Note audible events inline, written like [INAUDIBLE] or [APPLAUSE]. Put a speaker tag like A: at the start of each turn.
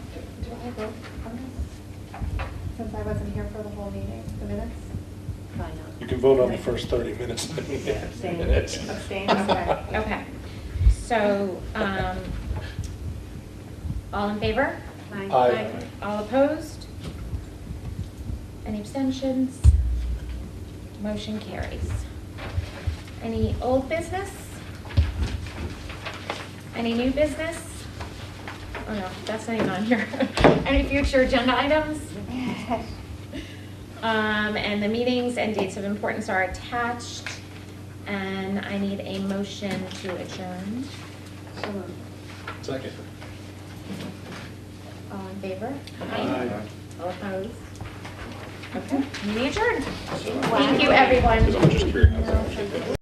A: I vote on it? Since I wasn't here for the whole meeting, the minutes?
B: Probably
C: You
B: not.
C: can vote on the first 30 minutes. [LAUGHS]
B: Abstain.
A: Abstain, okay.
D: Okay, so, um, all in favor?
B: Aye.
C: Aye.
D: All opposed? Any abstentions? Motion carries. Any old business? Any new business? Oh no, that's not even on here. [LAUGHS] Any future agenda items? Um, and the meetings and dates of importance are attached. And I need a motion to adjourn.
B: So moved.
C: Second.
D: All in favor?
C: Aye.
D: All opposed? Okay, meeting adjourned. Thank you, everyone.
C: Because I'm just curious.